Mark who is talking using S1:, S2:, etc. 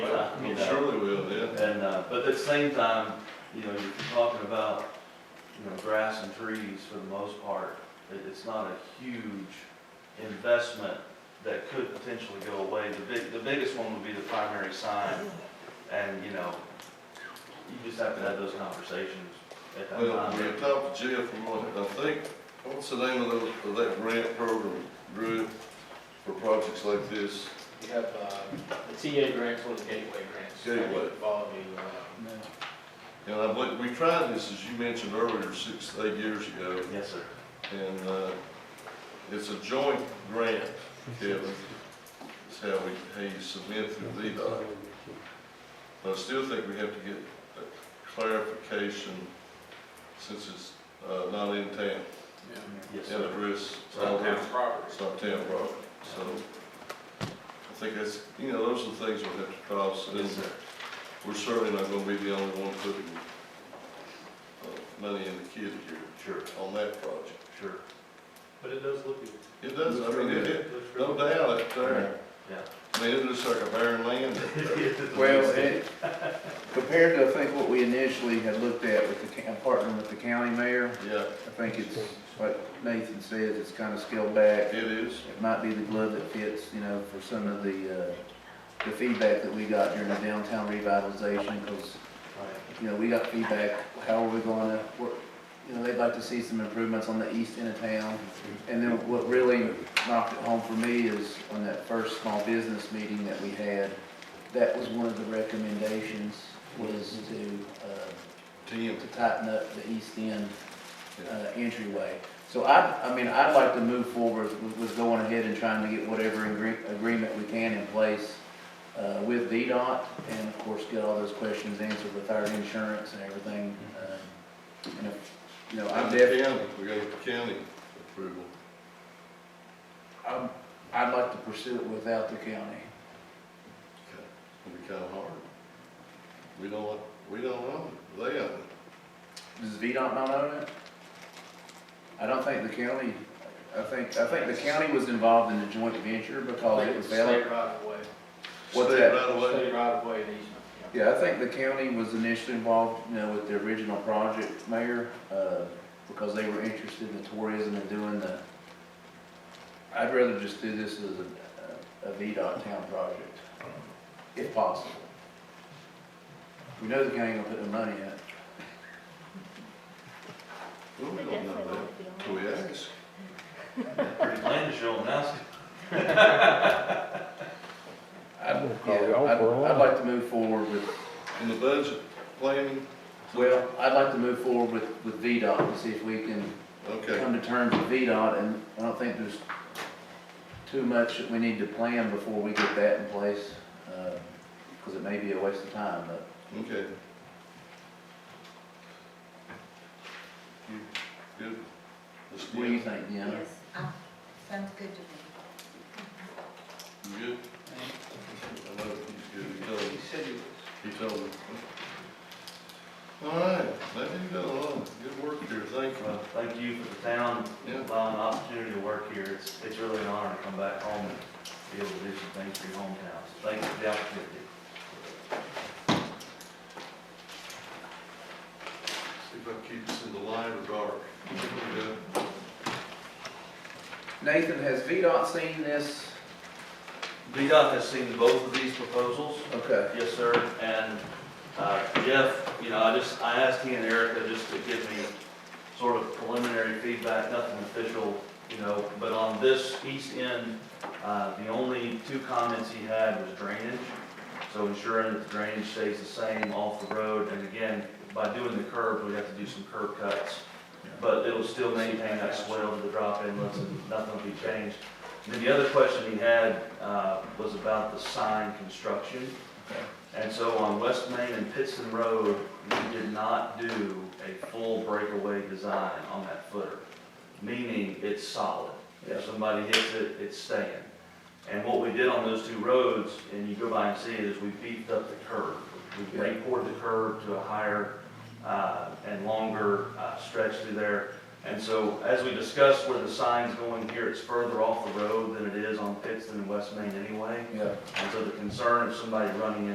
S1: you
S2: I'm
S1: know.
S2: sure they will, yeah.
S1: And, uh, but at the same time, you know, you're talking about, you know, grass and trees for the most part. It, it's not a huge investment that could potentially go away. The big, the biggest one would be the primary sign. And, you know, you just have to have those conversations at that
S2: Well, we
S1: time.
S2: had talked to Jeff, and what- I think, what's the name of those, of that grant program, Drew, for projects like this?
S3: You have, uh, the TA grants or the gateway grants.
S2: Gateway.
S3: Involve you, uh,
S2: And I believe, we tried this, as you mentioned earlier, six, eight years ago,
S1: Yes, sir.
S2: and, uh, it's a joint grant, Kevin. It's how we, how you submit through VDOT. But I still think we have to get a clarification, since it's, uh, not in town,
S1: Yes,
S2: in
S1: sir.
S2: address.
S3: it's on town property.
S2: It's not town property, so I think that's, you know, those are the things we'll have to cross, and
S1: Yes, sir.
S2: we're certainly not gonna be the only one putting uh, money in the kid here
S1: Sure,
S2: on that project.
S1: sure.
S3: But it does look good.
S2: It does, I mean, it, it-
S3: Looks really
S2: no
S3: good.
S2: doubt, it's there,
S1: Yeah.
S2: I mean, it looks like a barren land up there.
S4: Well, it, compared to, I think, what we initially had looked at with the, ca- partnering with the county mayor,
S2: Yeah,
S4: I think it's, like Nathan says, it's kind of scaled back.
S2: it is,
S4: It might be the glove that fits, you know, for some of the, uh, the feedback that we got during the downtown revitalization, because,
S1: Right.
S4: you know, we got feedback, how are we gonna, work? you know, they'd like to see some improvements on the east end of town. And then what really knocked it home for me is on that first small business meeting that we had, that was one of the recommendations was to, uh,
S2: ten,
S4: to tighten up the east end, uh,
S2: Yeah.
S4: entryway. So I, I mean, I'd like to move forward with, with going ahead and trying to get whatever agree- agreement we can in place, uh, with VDOT and of course get all those questions answered with our insurance and everything. um, And, if- you know, I'm
S2: and the
S4: definitely
S2: county, we got the county approval.
S4: I'm, I'd like to pursue it without the county.
S2: It'll be kinda hard. We don't, want- we don't own it, they own it.
S4: Does VDOT not own it? I don't think the county, I think, I think the county was involved in the joint venture because it was valid.
S3: State right of way.
S4: What's
S2: State
S4: that?
S2: Right away.
S3: State right of way and easement. yeah.
S4: Yeah, I think the county was initially involved, you know, with the original project, Mayor, uh, because they were interested in the tourism and doing the, I'd rather just do this as a, a VDOT town project, if possible. We know the county ain't gonna put no money in it.
S2: Well, We don't know that, till we ask.
S1: Pretty plain to show them now.
S4: I'd,
S5: I'm gonna
S4: yeah,
S5: call
S4: I'd,
S5: you off for a
S4: I'd
S5: while.
S4: like to move forward with,
S2: In the budget planning?
S4: well, I'd like to move forward with, with VDOT and see if we can
S2: Okay,
S4: come to terms with VDOT, and I don't think there's too much that we need to plan before we get that in place, uh, because it may be a waste of time, but
S2: okay. You Good. Ms.
S4: what do you
S2: Dean,
S4: think, Deanna?
S6: Yes, ah, sounds good to me.
S2: you good? I know he's good, he told me,
S3: You said you was.
S2: he told me. All right, I think you got a lot, of good work here, thank
S1: Well,
S2: you.
S1: thank you for the town
S2: Yeah.
S1: allowing the opportunity to work here. It's, it's really an honor to come back home and be able to do some things for your hometown. So thank you for the opportunity.
S2: See if I can keep this in the light or dark. Yeah.
S4: Nathan, has VDOT seen this?
S1: VDOT has seen both of these proposals.
S4: Okay.
S1: Yes, sir. And uh, Jeff, you know, I just, I asked he and Erica just to give me sort of preliminary feedback, nothing official, you know, but on this east end, uh, the only two comments he had was drainage. So ensuring that the drainage stays the same off the road. And again, by doing the curb, we have to do some curb cuts. But it'll still maintain that swell to the drop inlets and nothing will be changed. And then the other question he had uh, was about the sign construction. And so on West Main and Pittston Road, we did not do a full breakaway design on that footer, meaning it's solid. If somebody hits it, it's staying. And what we did on those two roads, and you go by and see it, is we beefed up the curb. We
S4: Yeah.
S1: re-poured the curb to a higher uh, and longer uh, stretch through there. And so, as we discussed where the sign's going here, it's further off the road than it is on Pittston and West Main anyway.
S4: Yeah.
S1: And so the concern of somebody running in.